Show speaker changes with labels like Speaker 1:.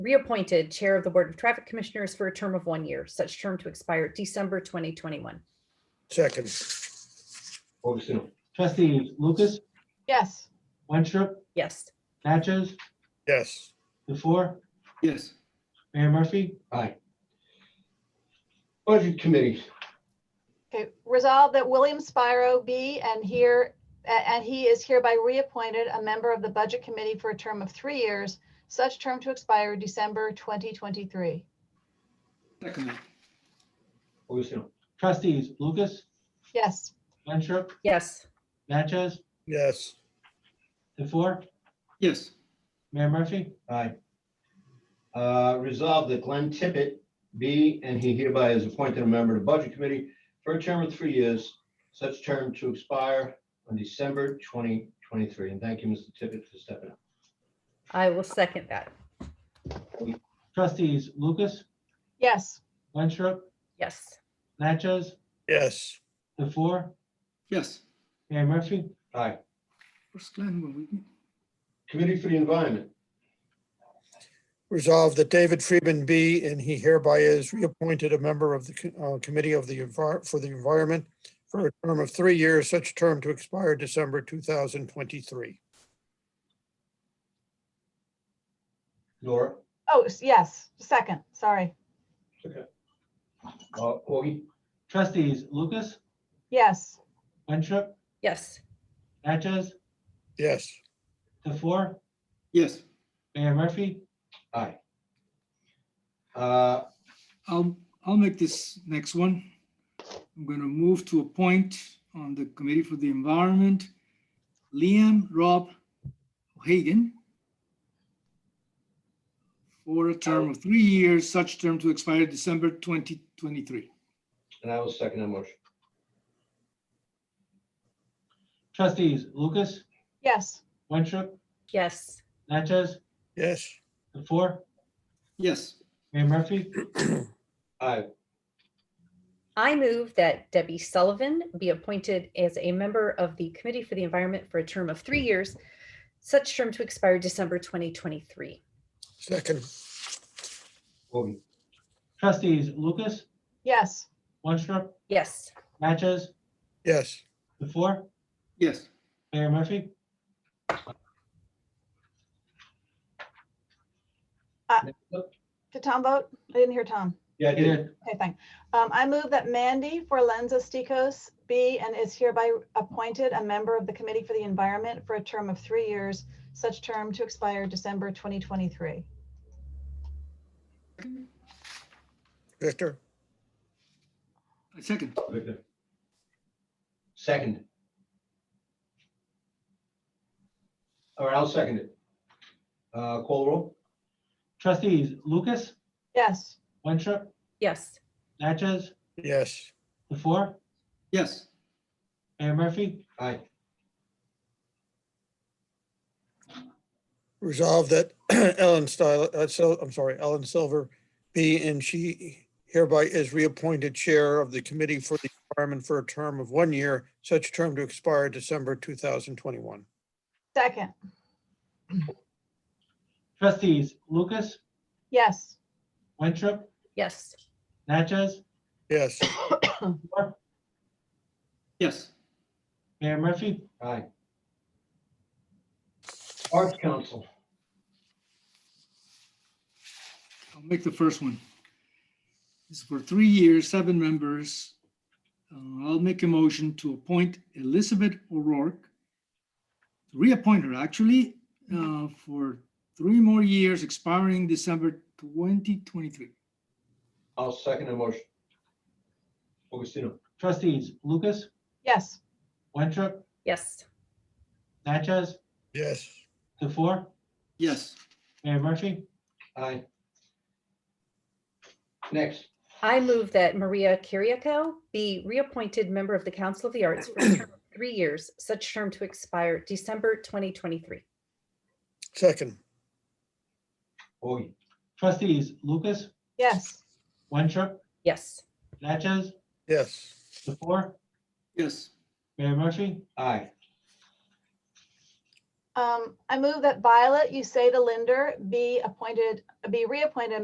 Speaker 1: reappointed Chair of the Board of Traffic Commissioners for a term of one year, such term to expire December 2021.
Speaker 2: second,
Speaker 3: Motion. Trustees Lucas,
Speaker 4: yes,
Speaker 3: Winstrup,
Speaker 1: Yes.
Speaker 3: Natchez,
Speaker 2: yes,
Speaker 3: DeFour,
Speaker 5: yes,
Speaker 3: Mayor Murphy?
Speaker 6: Aye. Budget Committee,
Speaker 4: okay, resolve that William Spiro be and here, a- and he is hereby reappointed a member of the Budget Committee for a term of three years, such term to expire December 2023.
Speaker 5: second,
Speaker 6: Motion.
Speaker 3: Trustees Lucas,
Speaker 4: Yes,
Speaker 3: Winstrup,
Speaker 1: Yes.
Speaker 3: Natchez,
Speaker 2: yes,
Speaker 3: DeFour,
Speaker 5: yes,
Speaker 3: Mayor Murphy?
Speaker 6: Aye. Uh, Resolved that Glenn Tippett be and he hereby is appointed a member of the Budget Committee for a term of three years, such term to expire on December 2023. And thank you, Mr. Tippett, for stepping up.
Speaker 1: I will second that.
Speaker 3: Trustees Lucas,
Speaker 4: yes,
Speaker 3: Winstrup,
Speaker 1: Yes.
Speaker 3: Natchez,
Speaker 2: yes,
Speaker 3: DeFour,
Speaker 5: yes.
Speaker 3: Mayor Murphy?
Speaker 6: Aye.
Speaker 5: Where's Glenn? Were we-
Speaker 6: Committee for the Environment,
Speaker 2: Resolved that David Friedman be and he hereby is reappointed a member of the co- uh, Committee of the Envir- for the Environment for a term of three years, such term to expire December 2023.
Speaker 6: Nora.
Speaker 4: oh, s- yes, second, sorry,
Speaker 6: uh, Augie,
Speaker 3: Trustees Lucas,
Speaker 4: yes,
Speaker 3: Winstrup,
Speaker 1: Yes.
Speaker 3: Natchez,
Speaker 2: Yes,
Speaker 3: DeFour,
Speaker 5: Yes,
Speaker 3: Mayor Murphy?
Speaker 6: Aye. Uh,
Speaker 5: I'll, I'll make this next one. I'm gonna move to appoint on the Committee for the Environment, Liam Rob Hagan for a term of three years, such term to expire December 2023.
Speaker 6: And I will second that motion.
Speaker 3: Trustees Lucas,
Speaker 4: yes,
Speaker 3: Winstrup,
Speaker 1: Yes.
Speaker 3: Natchez,
Speaker 2: yes,
Speaker 3: DeFour,
Speaker 5: Yes,
Speaker 3: Mayor Murphy?
Speaker 6: Aye.
Speaker 1: I move that Debbie Sullivan be appointed as a member of the Committee for the Environment for a term of three years, such term to expire December 2023.
Speaker 2: second,
Speaker 6: Augie,
Speaker 3: Trustees Lucas,
Speaker 4: yes,
Speaker 3: Winstrup,
Speaker 1: Yes.
Speaker 3: Natchez,
Speaker 2: yes,
Speaker 3: DeFour,
Speaker 5: yes,
Speaker 3: Mayor Murphy?
Speaker 4: did Tom vote? I didn't hear Tom.
Speaker 6: Yeah, I did.
Speaker 4: Okay, thank. Um, I move that Mandy for Lenza Stikos be and is hereby appointed a member of the Committee for the Environment for a term of three years, such term to expire December 2023.
Speaker 2: Victor,
Speaker 5: I second.
Speaker 6: Victor. Second. All right, I'll second it. Uh, Call roll.
Speaker 3: Trustees Lucas,
Speaker 4: Yes,
Speaker 3: Winstrup,
Speaker 1: Yes.
Speaker 3: Natchez,
Speaker 2: yes,
Speaker 3: DeFour,
Speaker 5: Yes,
Speaker 3: Mayor Murphy?
Speaker 6: Aye.
Speaker 2: Resolved that Ellen Style, uh, Sil- I'm sorry, Ellen Silver be and she hereby is reappointed Chair of the Committee for the Environment for a term of one year, such term to expire December 2021.
Speaker 4: second,
Speaker 3: Trustees Lucas,
Speaker 4: yes,
Speaker 3: Winstrup,
Speaker 1: Yes.
Speaker 3: Natchez,
Speaker 2: Yes,
Speaker 3: DeFour,
Speaker 5: yes,
Speaker 3: Mayor Murphy?
Speaker 6: Aye. Arts Council,
Speaker 5: I'll make the first one. This is for three years, seven members. Uh, I'll make a motion to appoint Elizabeth O'Rourke, reappoint her actually, uh, for three more years expiring December 2023.
Speaker 6: I'll second the motion. Augustino.
Speaker 3: Trustees Lucas,
Speaker 4: yes,
Speaker 3: Winstrup,
Speaker 1: Yes.
Speaker 3: Natchez,
Speaker 2: yes,
Speaker 3: DeFour,
Speaker 5: Yes,
Speaker 3: Mayor Murphy?
Speaker 6: Aye. Next,
Speaker 1: I move that Maria Kiriakou be reappointed member of the Council of the Arts for a term of three years, such term to expire December 2023.
Speaker 2: second,
Speaker 6: Augie.
Speaker 3: Trustees Lucas,
Speaker 4: yes,
Speaker 3: Winstrup,
Speaker 1: Yes.
Speaker 3: Natchez,
Speaker 2: yes,
Speaker 3: DeFour,
Speaker 5: yes,
Speaker 3: Mayor Murphy?
Speaker 6: Aye.
Speaker 4: Um, I move that Violet Uceda Linder be appointed, be reappointed